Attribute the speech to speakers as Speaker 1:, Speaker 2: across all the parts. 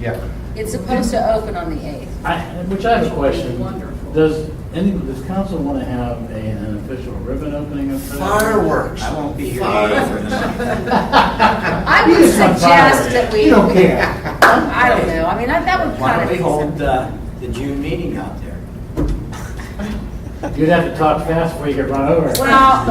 Speaker 1: Yeah.
Speaker 2: It's supposed to open on the 8th.
Speaker 3: I, which I have a question.
Speaker 2: Wonderful.
Speaker 3: Does any, does council want to have a- an official ribbon opening of that?
Speaker 1: Fireworks.
Speaker 4: I won't be here.
Speaker 2: I
Speaker 3: You
Speaker 2: would
Speaker 3: just want
Speaker 2: suggest
Speaker 3: fireworks.
Speaker 2: that we.
Speaker 1: You don't care.
Speaker 2: I don't know, I mean, that that would
Speaker 4: Why
Speaker 2: kind of
Speaker 4: don't we
Speaker 2: be.
Speaker 4: hold uh, the June meeting out there?
Speaker 3: You'd have to talk fast before you get run over.
Speaker 2: Well,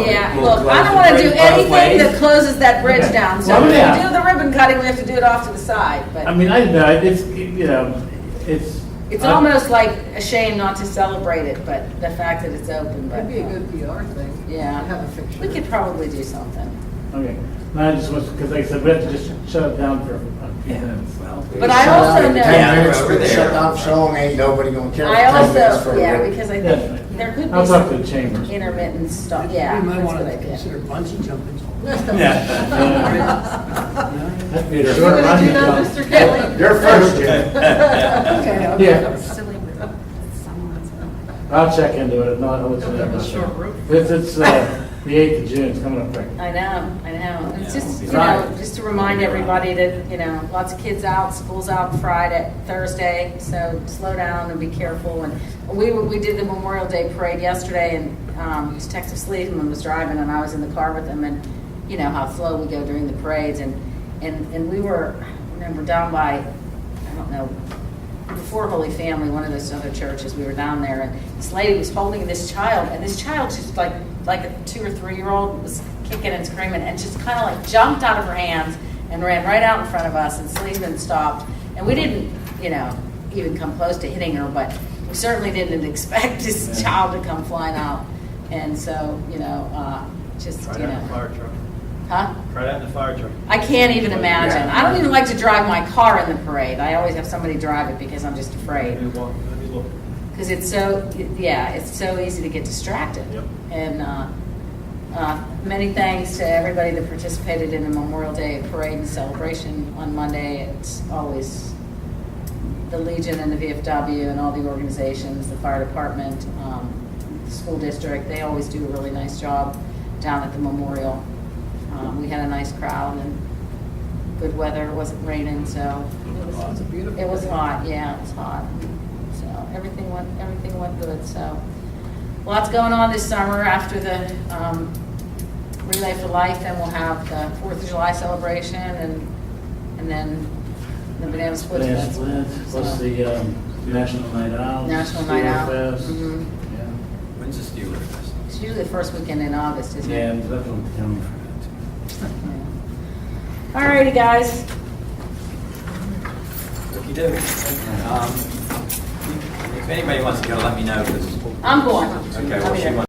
Speaker 4: No?
Speaker 2: yeah,
Speaker 4: We'll
Speaker 2: look, I
Speaker 4: close
Speaker 2: don't
Speaker 4: the
Speaker 2: want to do
Speaker 4: bridge both
Speaker 2: anything that
Speaker 4: ways.
Speaker 2: closes that bridge down. So
Speaker 3: Well,
Speaker 2: if we
Speaker 3: yeah.
Speaker 2: do the ribbon cutting, we have to do it off to the
Speaker 3: I
Speaker 2: side, but
Speaker 3: mean, I, know, it's, you know, it's.
Speaker 2: it's
Speaker 4: uh,
Speaker 2: almost like a shame not to celebrate it, but the fact that it's open, but.
Speaker 5: That'd be a good PR thing.
Speaker 2: Yeah.
Speaker 5: To have a picture.
Speaker 2: We could probably do something.
Speaker 3: Okay, No, I just was, because like I said, we have to just shut it down for a few minutes.
Speaker 4: Well,
Speaker 2: But I also know-
Speaker 4: Yeah,
Speaker 1: Ten minutes,
Speaker 4: over there.
Speaker 1: shut down, so ain't nobody gonna care.
Speaker 2: I
Speaker 1: Ten minutes for
Speaker 2: also,
Speaker 1: a
Speaker 2: yeah,
Speaker 1: bit.
Speaker 2: because I
Speaker 3: Definitely.
Speaker 2: think there could be
Speaker 3: I'll talk to
Speaker 2: some
Speaker 3: the chambers.
Speaker 2: intermittent stuff, yeah.
Speaker 5: We might
Speaker 2: that's
Speaker 5: want
Speaker 2: what I
Speaker 5: to
Speaker 2: did.
Speaker 5: consider bungee jumping.
Speaker 4: Yeah.
Speaker 3: That'd be a
Speaker 5: You
Speaker 3: short
Speaker 5: want
Speaker 3: run.
Speaker 5: to do that, Mr. Kelly?
Speaker 1: You're first, Jim.
Speaker 5: Okay. I'll-
Speaker 3: Yeah.
Speaker 6: Silly little someone's.
Speaker 3: I'll check into it, not, I'll let you know.
Speaker 5: Have a
Speaker 3: about that.
Speaker 5: short roof.
Speaker 3: It's, it's, uh, the eighth of June, it's coming up quick.
Speaker 2: I know, I know. It's
Speaker 4: Yeah,
Speaker 2: just,
Speaker 4: it'll
Speaker 2: you
Speaker 4: be
Speaker 2: know,
Speaker 3: fine.
Speaker 2: just to remind everybody that, you know, lots of kids out, school's out Friday, Thursday, so slow down and be careful. And we, were- we did the Memorial Day Parade yesterday, and um, Detective Sleeman was driving, and I was in the car with him, and you know how slow we go during the parades, and, and, and we were, I remember down by, I don't know, before Holy Family, one of those other churches, we were down there, and this lady was holding this child, and this child just like, like a two or three year old was kicking and screaming, and just kind of like jumped out of her hands and ran right out in front of us, and Sleesman stopped, and we didn't, you know, even come close to hitting her, but we certainly didn't expect this
Speaker 3: Yeah.
Speaker 2: child to come flying out, and so, you know, uh, just,
Speaker 7: Right
Speaker 2: you
Speaker 7: out in the
Speaker 2: know.
Speaker 7: fire truck.
Speaker 2: Huh?
Speaker 7: Right out in the fire truck.
Speaker 2: I can't even imagine.
Speaker 1: Yeah.
Speaker 2: I don't even like to drive my car in the parade. I always have somebody drive it because I'm just afraid.
Speaker 7: Let me walk, let me look.
Speaker 2: Because it's so, yeah, it's so easy to get distracted.
Speaker 7: Yep.
Speaker 2: And uh, uh, many thanks to everybody that participated in the Memorial Day Parade and celebration on Monday. It's always the Legion and the VFW and all the organizations, the fire department, um, the school district, they always do a really nice job down at the memorial. Um, We had a nice crowd and good weather, it wasn't raining, so
Speaker 5: It was beautiful.
Speaker 2: it was hot, yeah, it was hot. So everything went, everything went good, so. Lots going on this summer after the um, Relay for Life, then we'll have the Fourth of July celebration and, and then the Banana Split.
Speaker 3: Banana Split, what's the, um, National Night Out?
Speaker 2: National Night Out.
Speaker 3: Steelfest.
Speaker 2: Mhm.
Speaker 3: Yeah,
Speaker 4: When's the Stewart Fest?
Speaker 2: It's usually the first weekend in August, isn't
Speaker 3: Yeah,
Speaker 2: it?
Speaker 3: that's what I'm telling you.
Speaker 2: All righty, guys.
Speaker 4: If you do, um, if anybody wants to go, let me know, because.
Speaker 2: I'm going.
Speaker 4: Okay, well, she
Speaker 2: I'll be there.